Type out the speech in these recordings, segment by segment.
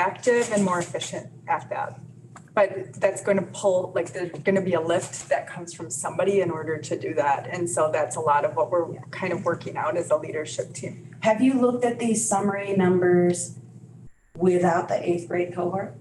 active and more efficient at that. But that's going to pull, like, there's going to be a lift that comes from somebody in order to do that. And so that's a lot of what we're kind of working out as a leadership team. Have you looked at these summary numbers without the eighth grade cohort?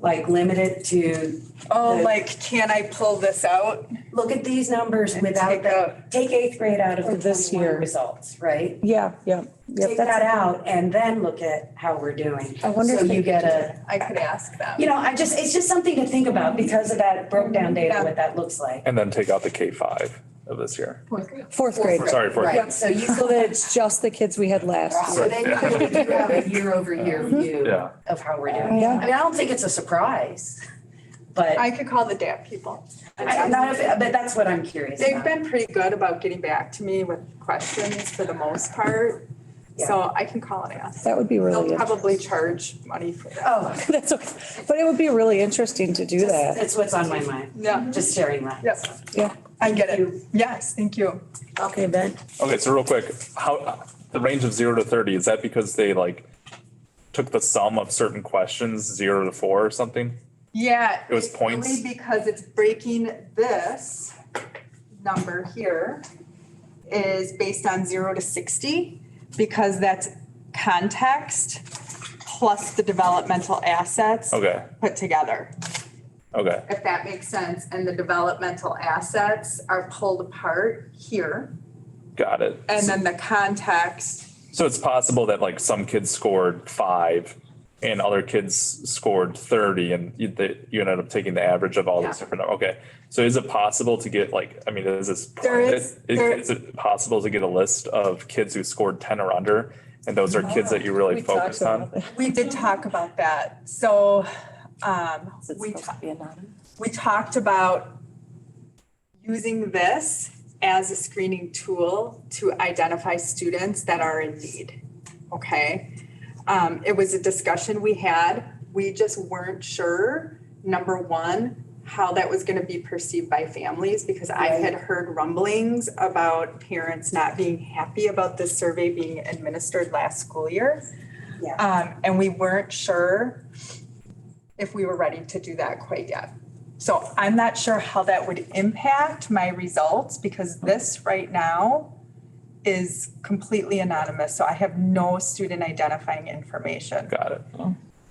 Like limited to, Oh, The- like, can I pull this out? look at these numbers and without take the, out- take eighth grade out of Or the this twenty-one year. results, right? Yeah, yeah, yeah. Take that's- that out and then look at how we're doing. I wonder if So they you could get do a, I could ask them. you know, I just, it's just something to think about because of that broke down Mm-hmm. data, what that looks like. And then take out the K five of this year. Fourth grade. Sorry for Right, so you So could, that it's just the kids we had last so year. then you could have a year over year view Yeah. of how we're doing. Yeah. I mean, I don't think it's a surprise, but I could call the DAP people. I- I'm not, but that's what I'm curious They've about. been pretty good about getting back to me with questions for the most part. So I can call and ask. That would be really, They'll in- probably charge money for that. Oh, that's okay. But it would be really interesting to do just- that. that's what's on my mind, Yeah, just sharing that. yes. Yeah. I get it. Yes, thank you. Okay, Ben. Okay, so real quick, how, the range of zero to thirty, is that because they like took the sum of certain questions, zero to four or something? Yeah. It was it's points? only Because it's breaking this number here is based on zero to sixty, because that's context plus the developmental assets Okay, put together, okay, if that makes sense. And the developmental assets are pulled apart here. got it. And then the context, So it's possible that like some kids scored five and other kids scored thirty and you, they- you ended up taking the average of all these different, okay. So is it possible to get like, I mean, is this? There private? is- there- Is it possible to get a list of kids who scored ten or under? And those are kids that you really We talked focused about on? that. we did talk about that. So, um, Is it we supposed to be anonymous? we talked about using this as a screening tool to identify students that are in need. Okay? Um, it was a discussion we had. We just weren't sure, number one, how that was going to be perceived by families because I had heard rumblings about parents not being happy about this survey being administered last school year. Yeah. Um, and we weren't sure if we were ready to do that quite yet. So I'm not sure how that would impact my results because this right now is completely anonymous. So I have no student identifying information. Got it.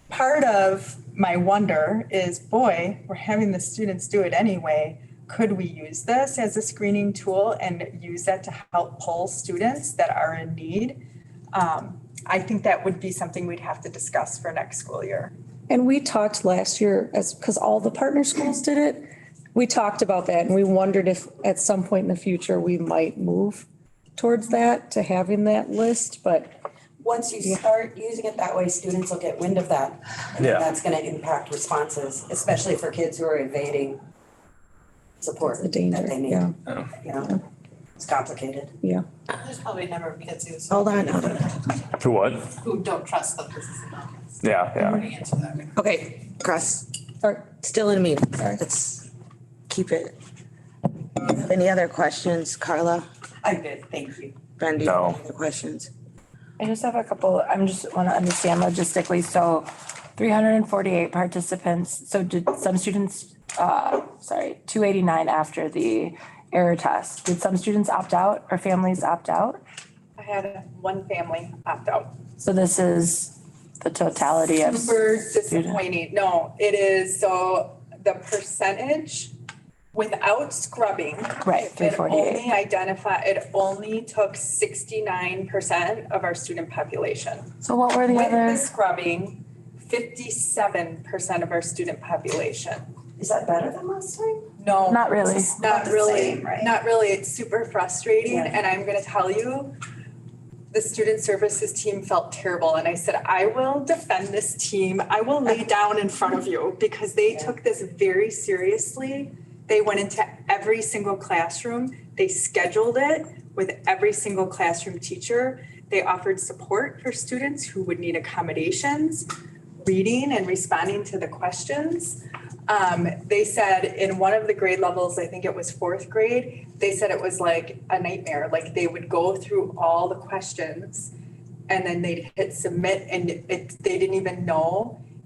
Part of my wonder is, boy, we're having the students do it anyway. Could we use this as a screening tool and use that to help pull students that are in need? Um, I think that would be something we'd have to discuss for next school year. And we talked last year as, because all the partner schools did it. We talked about that and we wondered if at some point in the future we might move towards that, to having that list, but Once you start using it that way, students will get wind of that. and Yeah. That's gonna impact responses, especially for kids who are evading support the that danger, they need, yeah, you know? It's complicated. yeah. There's probably a number of kids who. Hold on, hold on. To what? Who don't trust that this is anonymous. Yeah, yeah. They answer that. Okay, cross, Or still in meeting. Sorry. Let's keep it. Any other questions, Carla? I'm good, thank you. Brenda, do you No. have any questions? I just have a couple, I'm just want to understand logistically, so three hundred and forty-eight participants, so did some students, uh, sorry, two eighty-nine after the error test, did some students opt out or families opt out? I had one family opt out. So this is the totality of, Super disappointing. No, it is, so the percentage without scrubbing. Right, It 348. only identify, it only took sixty-nine percent of our student population. so what were the With the other, scrubbing, fifty-seven percent of our student population. Is that better than last time? No. not really, It's about Not the really, same, right? not really. It's super frustrating Yeah. and I'm gonna tell you, the student services team felt terrible and I said, I will defend this team. I will lay down in front of you because they took this very seriously. They went into every single classroom. They scheduled it with every single classroom teacher. They offered support for students who would need accommodations, reading and responding to the questions. Um, they said in one of the grade levels, I think it was fourth grade, they said it was like a nightmare. Like they would go through all the questions and then they'd hit submit and it, they didn't even know